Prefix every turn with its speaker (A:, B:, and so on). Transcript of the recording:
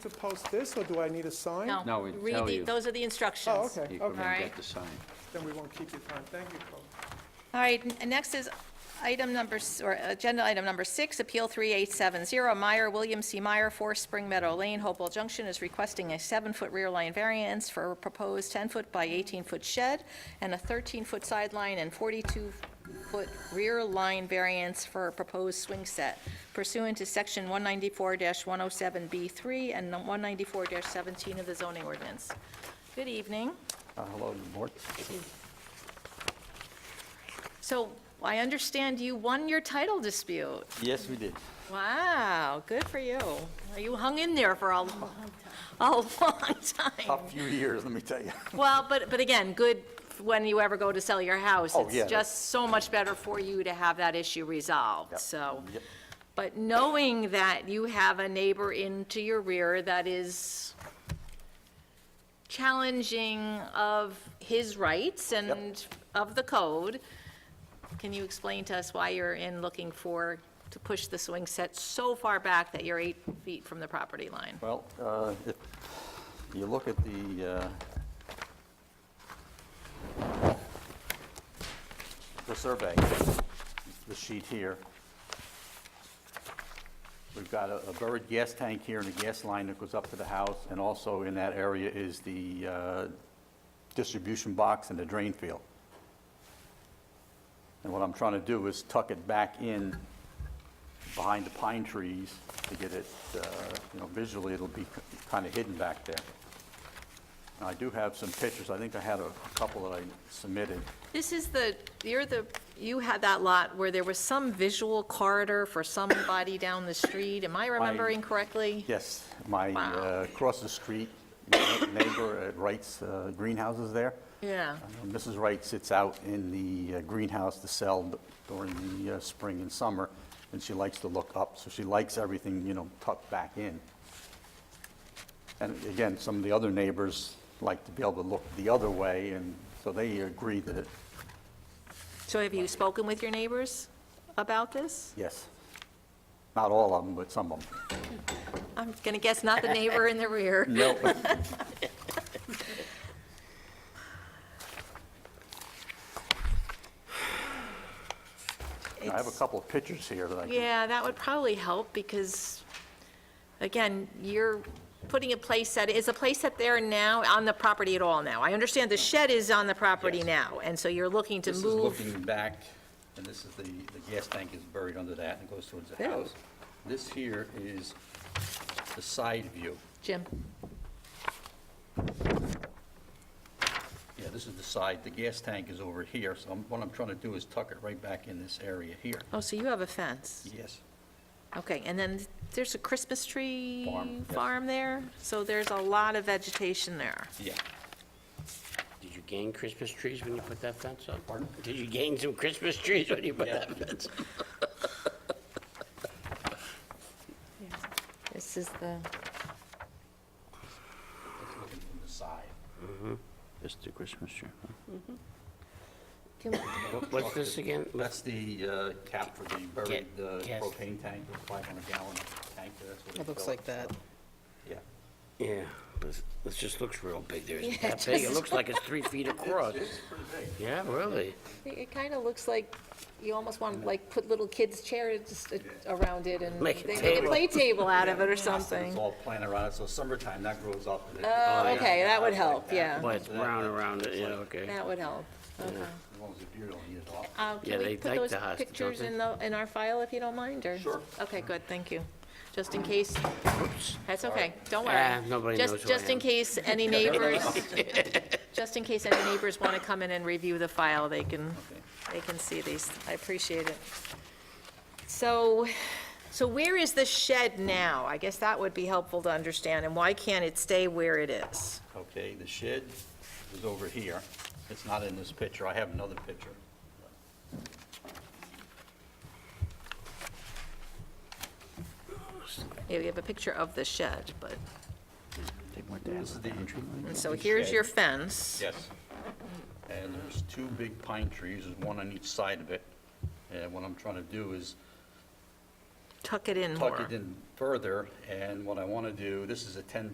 A: to post this, or do I need a sign?
B: No.
C: No, we
B: read
C: tell
B: the-
C: you.
B: Those are the instructions.
A: Oh, okay,
C: You come
A: okay,
C: and
B: Alright.
C: get the sign.
A: then we won't keep you time, thank you, Chloe.
B: All right, n- next is item number, s- or agenda item number six, Appeal 3870, Meyer, William C. Meyer, 4 Spring Meadow Lane, Hopewell Junction, is requesting a seven-foot rear line variance for a proposed 10-foot by 18-foot shed and a 13-foot sideline and 42-foot rear line variance for a proposed swing set pursuant to Section 194-107B3 and 194-17 of the zoning ordinance. Good evening.
C: Uh, Hello, the board.
B: So I understand you won your title dispute.
C: Yes, we did.
B: Wow, good for you. You hung in there for a long, a long time.
C: Tough few years, let me tell you.
B: Well, but, but again, good when you ever go to sell your house.
C: Oh, yeah,
B: It's just so much better for you to have that issue resolved,
C: Yep,
B: so.
C: yep.
B: But knowing that you have a neighbor into your rear that is challenging of his rights and of the code, can you explain to us why you're in looking for, to push the swing set so far back that you're eight feet from the property line?
D: Well, uh, if you look at the, uh, the survey, the sheet here, we've got a a buried gas tank here and a gas line that goes up to the house, and also in that area is the uh, distribution box and the drain field. And what I'm trying to do is tuck it back in behind the pine trees to get it, uh, you know, visually, it'll be kind of hidden back there. And I do have some pictures, I think I had a couple that I submitted.
B: This is the, you're the, you had that lot where there was some visual corridor for somebody down the street. Am I remembering correctly?
D: Yes, my,
B: Wow.
D: uh, across the street, my neighbor at Wright's uh, greenhouses there.
B: Yeah.
D: Uh, Mrs. Wright sits out in the uh, greenhouse to sell d- during the uh, spring and summer, and she likes to look up, so she likes everything, you know, tucked back in. And again, some of the other neighbors like to be able to look the other way, and so they agree that, it-
B: So have you spoken with your neighbors about this?
D: yes. Not all of them, but some of them.
B: I'm going to guess not the neighbor in the rear.
D: No. I have a
B: It's-
D: couple of pictures here that I can
B: Yeah, that would probably help because, again, you're putting a place that, is a place that there now on the property at all now? I understand the shed is on the property
D: Yes.
B: now, and so you're looking to
D: This is
B: move.
D: looking back, and this is the, the gas tank is buried under that and goes towards the
B: There.
D: house. This here is the side view.
B: Jim,
D: Yeah, this is the side, the gas tank is over here, so I'm- what I'm trying to do is tuck it right back in this area here.
B: oh, so you have a fence?
D: Yes.
B: Okay, and then there's a Christmas tree
D: Farm, yes.
B: farm there? So there's a lot of vegetation there.
D: Yeah.
E: Did you gain Christmas trees when you put that fence up? Did you gain some Christmas trees when you put that fence up?
B: This is the,
D: It's looking from the side.
C: It's the Christmas tree. huh?
E: What- What's this again?
D: That's
E: Let's-
D: the uh, cap for the buried uh,
E: Gas.
D: propane tank, the 500 gallon tank, that's what it's
F: It looks
D: built.
F: like that.
D: Yeah.
E: Yeah, this, this just looks real big there. Is it
B: Yeah, it
E: that big? It
B: does.
E: looks like it's three feet across.
D: It's pretty big.
E: Yeah, really?
B: it kind of looks like, you almost want to like put little kids' chairs around it and
E: Make a
B: they make a
E: table.
B: play table out of it or
D: It's
B: something.
D: all planted around it, so summertime, that grows up. and it-
B: Oh,
E: yeah.
B: okay, that would help,
D: Like
B: yeah.
D: that.
E: Well, it's brown around it, yeah, okay.
B: That would help. Okay.
D: As long as the deer don't eat it off.
B: Uh,
E: Yeah,
B: Can we
E: they
B: put
E: like
B: those
E: the hostas, don't
B: pictures
E: they?
B: in the, in our file if you don't mind, or?
D: Sure.
B: Okay, good, thank you. Just in case, that's okay, don't
E: Ah,
B: worry.
E: nobody
B: Just-
E: knows who I
B: Just in
E: am.
B: case any neighbors, just in case any neighbors want to come in and review the file, they can, they can see these. I appreciate it. So, so where is the shed now? I guess that would be helpful to understand, and why can't it stay where it is?
D: Okay, the shed is over here. It's not in this picture. I have another picture.
B: Yeah, we have a picture of the shed, but,
C: They went down
D: This is
C: with
D: the
C: the
D: entry.
B: and so here's your fence.
D: Yes. And there's two big pine trees, there's one on each side of it. And what I'm trying to do is
B: tuck it in more.
D: tuck it in further, and what I want to do, this is a 10